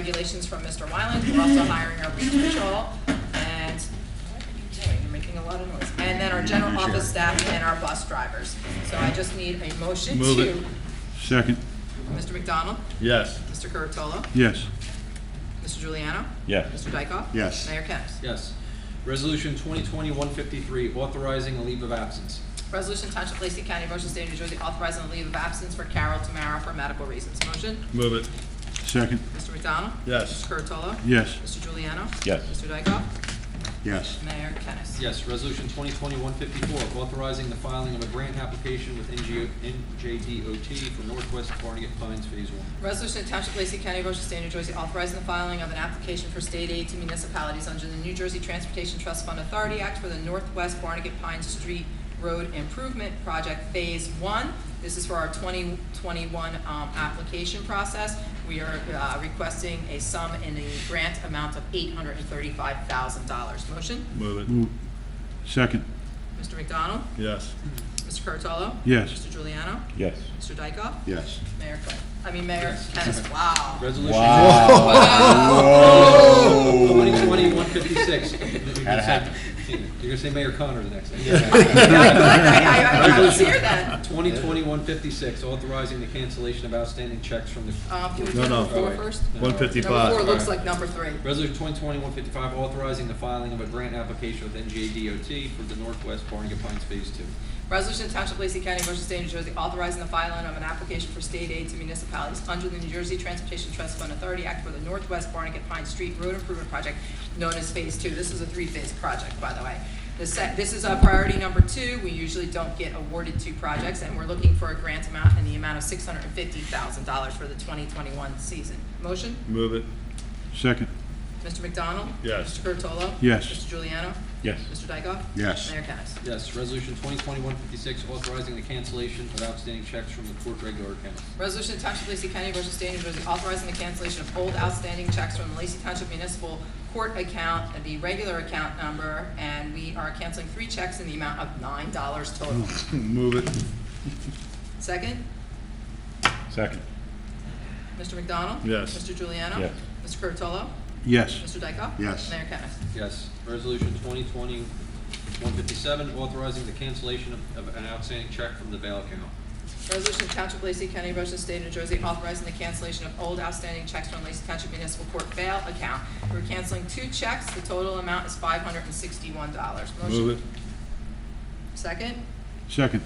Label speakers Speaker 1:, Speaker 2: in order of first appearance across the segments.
Speaker 1: regulations from Mr. Wyland. We're also hiring our beach patrol and, boy, you're making a lot of noise. And then our general office staff and our bus drivers. So I just need a motion
Speaker 2: Move it.
Speaker 1: to,
Speaker 3: Second,
Speaker 1: Mr. McDonald,
Speaker 2: Yes.
Speaker 1: Mr. Curatolo,
Speaker 3: yes.
Speaker 1: Mr. Juliano,
Speaker 2: Yes.
Speaker 1: Mr. Dykoff?
Speaker 3: Yes.
Speaker 1: Mayor Kennas.
Speaker 4: Yes. Resolution 2020-153, authorizing a leave of absence.
Speaker 1: Resolution Township of Lacey County, Motion State of New Jersey, authorizing the leave of absence for Carol Tamara for medical reasons. Motion,
Speaker 2: Move it.
Speaker 3: Second,
Speaker 1: Mr. McDonald?
Speaker 2: Yes.
Speaker 1: Mr. Curatolo?
Speaker 3: yes.
Speaker 1: Mr. Juliano?
Speaker 2: Yes.
Speaker 1: Mr. Dykoff?
Speaker 3: Yes.
Speaker 1: Mayor Kennas.
Speaker 4: Yes. Resolution 2020-154, authorizing the filing of a grant application with NGO NJDOT for Northwest Barnegat Pines Phase 1.
Speaker 1: Resolution to Township of Lacey County, Ocean State, New Jersey, authorizing the filing of an application for state aid to municipalities under the New Jersey Transportation Trust Fund Authority Act for the Northwest Barnegat Pine Street Road Improvement Project Phase One. This is for our 2021 um, application process. We are uh, requesting a sum in the grant amount of $835,000. Motion,
Speaker 2: Move it.
Speaker 3: Move. Second,
Speaker 1: Mr. McDonald,
Speaker 2: Yes.
Speaker 1: Mr. Curatolo?
Speaker 3: yes.
Speaker 1: Mr. Juliano?
Speaker 2: Yes.
Speaker 1: Mr. Dykoff?
Speaker 3: Yes.
Speaker 1: Mayor Quinn? I mean, Mayor
Speaker 4: Yes.
Speaker 1: Kennas, wow.
Speaker 4: Resolution.
Speaker 2: Oh.
Speaker 4: 2020-156. Had You're gonna say Mayor Connor the next time.
Speaker 1: I, I, I was here then.
Speaker 4: 2020-156, authorizing the cancellation of outstanding checks from the,
Speaker 1: Um, can we
Speaker 2: No,
Speaker 1: do
Speaker 2: no.
Speaker 1: number four first?
Speaker 2: One
Speaker 1: Number four
Speaker 2: fifty-five.
Speaker 1: looks like number three.
Speaker 4: Resolution 2020-155, authorizing the filing of a grant application with NJDOT for the Northwest Barnegat Pines Phase 2.
Speaker 1: Resolution to Township of Lacey County, Ocean State, New Jersey, authorizing the filing of an application for state aid to municipalities under the New Jersey Transportation Trust Fund Authority Act for the Northwest Barnegat Pine Street Road Improvement Project, known as Phase Two. This is a three-phase project, by the way. The sec, this is uh priority number two. We usually don't get awarded two projects, and we're looking for a grant amount in the amount of six hundred and fifty thousand dollars for the twenty twenty-one season. Motion?
Speaker 2: Move it.
Speaker 3: Second,
Speaker 1: Mr. McDonald?
Speaker 2: Yes.
Speaker 1: Mr. Curatolo?
Speaker 3: Yes.
Speaker 1: Mr. Juliano?
Speaker 2: Yes.
Speaker 1: Mr. Dykoff?
Speaker 3: Yes.
Speaker 1: Mayor Kennas.
Speaker 4: Yes, resolution 2020-156, authorizing the cancellation of outstanding checks from the court regular accounts.
Speaker 1: Resolution to Township of Lacey County, Ocean State, New Jersey, authorizing the cancellation of old outstanding checks from the Lacey Township Municipal Court account, the regular account number, and we are canceling three checks in the amount of nine dollars total.
Speaker 2: Hmm. Move it.
Speaker 1: Second,
Speaker 2: Second.
Speaker 1: Mr. McDonald?
Speaker 2: Yes.
Speaker 1: Mr. Juliano?
Speaker 2: Yes.
Speaker 1: Mr. Curatolo?
Speaker 3: yes.
Speaker 1: Mr. Dykoff?
Speaker 3: Yes.
Speaker 1: Mayor Kennas.
Speaker 4: Yes, resolution 2020-157, authorizing the cancellation of- of an outstanding check from the bail account.
Speaker 1: Resolution to Township of Lacey County, Ocean State, New Jersey, authorizing the cancellation of old outstanding checks from Lacey Township Municipal Court bail account. We're canceling two checks. The total amount is five hundred and sixty-one dollars.
Speaker 2: Move it.
Speaker 1: Second,
Speaker 3: Second,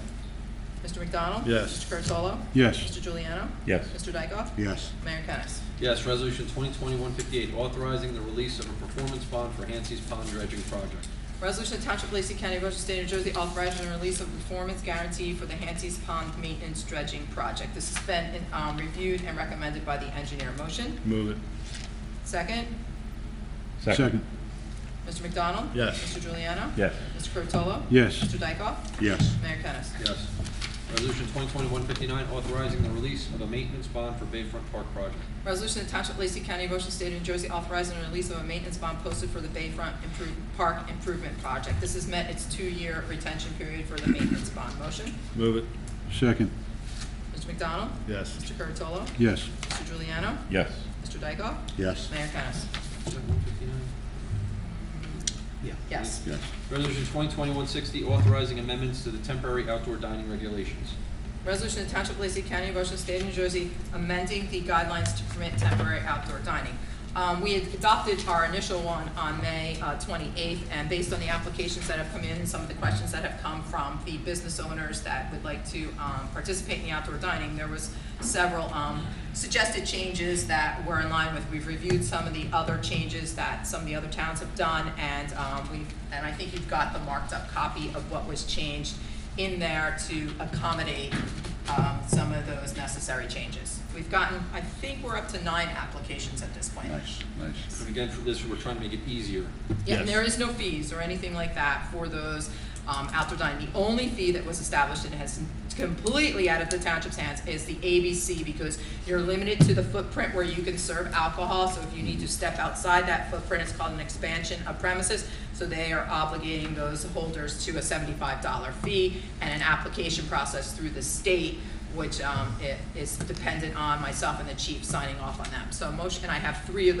Speaker 1: Mr. McDonald?
Speaker 2: Yes.
Speaker 1: Mr. Curatolo?
Speaker 3: yes.
Speaker 1: Mr. Juliano?
Speaker 2: Yes.
Speaker 1: Mr. Dykoff?
Speaker 3: Yes.
Speaker 1: Mayor Kennas.
Speaker 4: Yes, resolution 2020-158, authorizing the release of a performance bond for Hancy's Pond dredging project.
Speaker 1: Resolution to Township of Lacey County, Ocean State, New Jersey, authorizing the release of performance guarantee for the Hanses Pond Maintenance Dredging Project. This has been um, reviewed and recommended by the engineer. Motion?
Speaker 2: Move it.
Speaker 1: Second,
Speaker 3: Second,
Speaker 1: Mr. McDonald?
Speaker 2: Yes.
Speaker 1: Mr. Juliano?
Speaker 2: Yes.
Speaker 1: Mr. Curatolo?
Speaker 3: yes.
Speaker 1: Mr. Dykoff?
Speaker 3: Yes.
Speaker 1: Mayor Kennas.
Speaker 4: Yes. Resolution 2020-159, authorizing the release of a maintenance bond for Bayfront Park project.
Speaker 1: Resolution to Township of Lacey County, Ocean State, New Jersey, authorizing the release of a maintenance bond posted for the Bayfront Improve, Park Improvement Project. This has met its two-year retention period for the maintenance bond. Motion?
Speaker 2: Move it.
Speaker 3: Second,
Speaker 1: Mr. McDonald?
Speaker 2: Yes.
Speaker 1: Mr. Curatolo?
Speaker 3: yes.
Speaker 1: Mr. Juliano?
Speaker 2: Yes.
Speaker 1: Mr. Dykoff?
Speaker 3: Yes.
Speaker 1: Mayor Kennas.
Speaker 4: Is that 159? Yeah.
Speaker 1: Yes.
Speaker 3: Yes.
Speaker 4: Resolution 2020-160, authorizing amendments to the temporary outdoor dining regulations.
Speaker 1: Resolution of Township of Lacey County, Ocean State, New Jersey, amending the guidelines to permit temporary outdoor dining. Um, we had adopted our initial one on May uh, 28th, and based on the applications that have come in and some of the questions that have come from the business owners that would like to, um, participate in the outdoor dining, there was several, um, suggested changes that were in line with, we've reviewed some of the other changes that some of the other towns have done, and, um, we've, and I think you've got the marked up copy of what was changed in there to accommodate um, some of those necessary changes. We've gotten, I think we're up to nine applications at this point.
Speaker 3: Nice, nice.
Speaker 4: And again, for this, we're trying to make it easier.
Speaker 1: Yeah, and
Speaker 2: Yes.
Speaker 1: there is no fees or anything like that for those um, outdoor dining. The only fee that was established and has completely out of the township's hands is the ABC because you're limited to the footprint where you can serve alcohol. So if you need to step outside that footprint, it's called an expansion of premises. So they are obligating those holders to a seventy-five dollar fee and an application process through the state which um, it is dependent on myself and the chief signing off on them. So motion, and I have three of